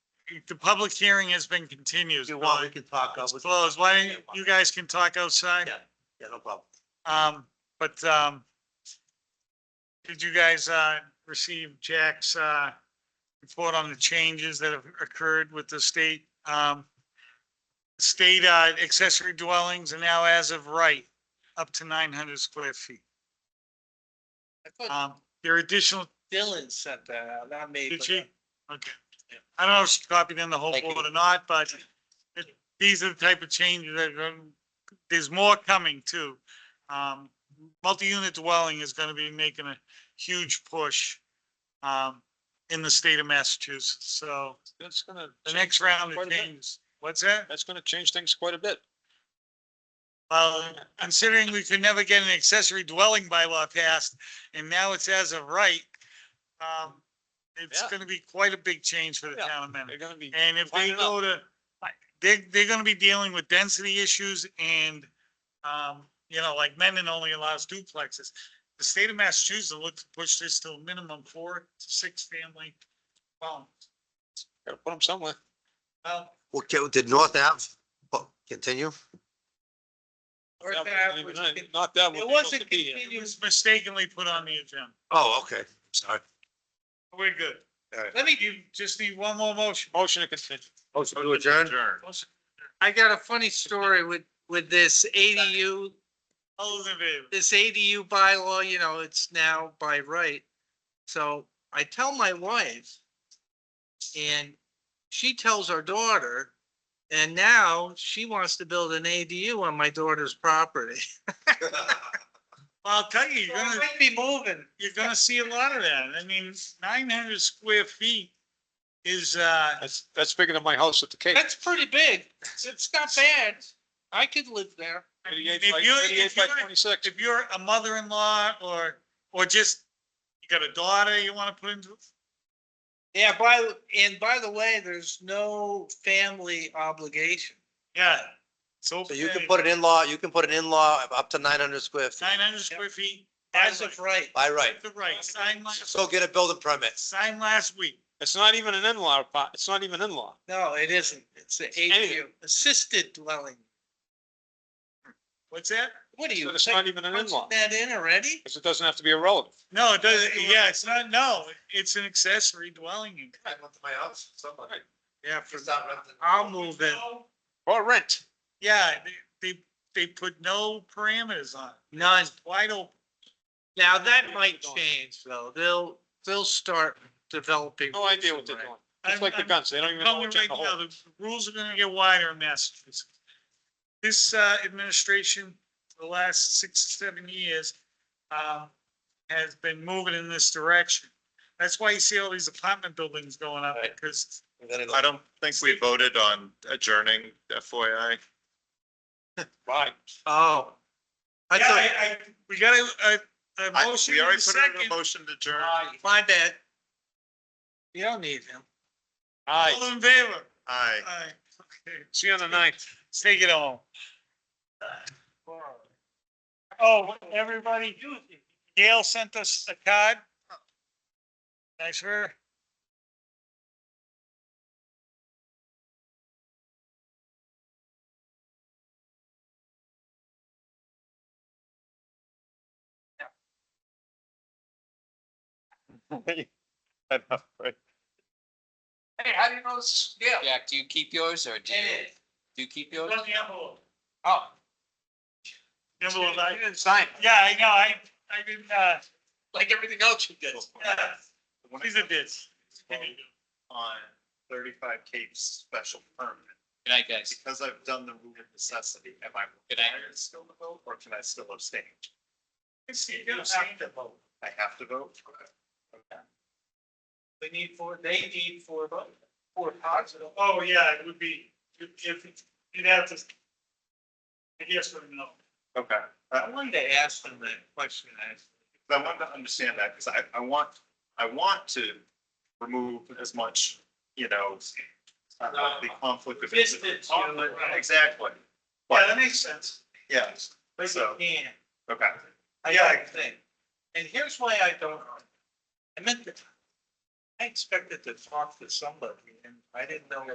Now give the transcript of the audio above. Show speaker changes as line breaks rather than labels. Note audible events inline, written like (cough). the public hearing has been continued.
you want, we can talk. uh,
It's
with-
closed. Why, don't you- you guys can talk outside.
Yeah, yeah, no problem.
Um, but, um, did you guys, uh, receive Jack's, uh, report on the changes that have occurred with the state? Um, state, uh, accessory dwellings are now as of right, up to nine hundred square feet.
I thought
Um, there are additional,
Dylan sent that out, not me.
did
but- uh,
she? Okay. I don't know if she copied in the whole
Thank you.
board or not, but it- these are the type of changes that, are gonna- there's more coming too. Um, multi-unit dwelling is gonna be making a huge push um, in the state of Massachusetts. So
That's gonna.
the
change
next
things
round
quite a
of
bit.
changes, what's that?
That's gonna change things quite a bit.
Well, considering we could never get an accessory dwelling bylaw passed and now it's as of right, um, it's
Yeah.
gonna be quite a big change for the
Yeah.
town of Mendon.
They're gonna be,
And if they
Line it up.
go to, they, they're gonna be dealing with density issues and, um, you know, like Mendon only allows duplexes. The state of Massachusetts will look to push this to a minimum four to six family. Well,
gotta put them somewhere.
well,
Well, can- did North Ave, oh, continue?
Or
Not
that was- It
Not that one.
wasn't
it
continuous.
was mistakenly put on the agenda.
Oh, okay, (laughs) sorry.
We're good.
All right.
Let me, you just need one more motion.
Motion to continue.
Motion to adjourn?
I got a funny story with, with this ADU,
All those in favor?
this ADU bylaw, you know, it's now by right. So I tell my wife and she tells our daughter, and now she wants to build an ADU on my daughter's property.
Well, I'll tell you,
So
you're
I
gonna.
might be moving.
you're gonna see a lot of that. I mean, nine hundred square feet is, uh,
That's, that's bigger than my house with the cake.
That's pretty big. It's not bad. I could live there.
Thirty-eight
If
by,
you- if
thirty-eight by
you-
twenty-six.
if you're a mother-in-law or, or just, you got a daughter you wanna put into,
Yeah, by, and by the way, there's no family obligation.
yeah. So
So you can put an in-law, you can put an in-law up to nine hundred square feet,
Nine hundred square feet.
As of right.
by right.
The right, signed last,
So get a building permit.
signed last week.
It's not even an in-law, apart- it's not even in-law.
No, it isn't. It's the ADU, assisted dwelling.
What's that?
What are you?
It's not even an in-law,
punching That in already?
because it doesn't have to be a relative.
No, it doesn't, yeah, it's not, no, it's an accessory dwelling unit.
I went to my house, somebody.
Yeah, for,
I'll move in.
Or rent.
yeah, they, they, they put no parameters on it.
None.
Wide open.
Now that might change though. They'll, they'll start developing.
No idea what they're doing. It's like the
I'm-
guns. They don't even know
Tell me
what's in
right
the
now,
hole.
the rules are gonna get wider in Massachusetts. This, uh, administration, for the last six, seven years, um, has been moving in this direction. That's why you see all these apartment buildings going up,
Right.
because
I don't think we voted on adjourning FYI.
Right.
Oh. I
Yeah,
thought,
I, I, we got a, a, a
I-
motion
We
in a
already put it in a
second. Uh,
motion to adjourn.
my bad. You don't need him.
Aye.
All in favor?
Aye.
Aye. Okay,
See you on the ninth.
let's take it home. Oh, everybody, Gail sent us a card. Thanks for her.
I know, right?
Hey, how do you know this? Yeah.
Jack, do you keep yours or do you, do you keep yours?
Let me have a look.
Oh.
Remember what I-
didn't sign it.
yeah, I know, I, I didn't, uh,
Like everything else you did.
yeah, these are bids.
On thirty-five Cape special permit,
Good night, guys.
because I've done the rule of necessity, am I
Good night.
required still to vote, or can I still abstain?
You have to
vote. I have to vote? Okay.
We need four, they need four, vote- four positive.
Oh, yeah, it would be, if, you'd have to. I guess, but no.
Okay,
I wanted to ask them that question. I asked.
But I want to understand that, because I, I want, I want to remove as much, you know, uh, the conflict of. interest.
Distance, you know, right.
Exactly,
Yeah, that makes sense.
yes,
But you
So-
can.
okay.
I
Yeah.
don't think. And here's why I don't. I meant to.
I expected to talk to somebody and I didn't know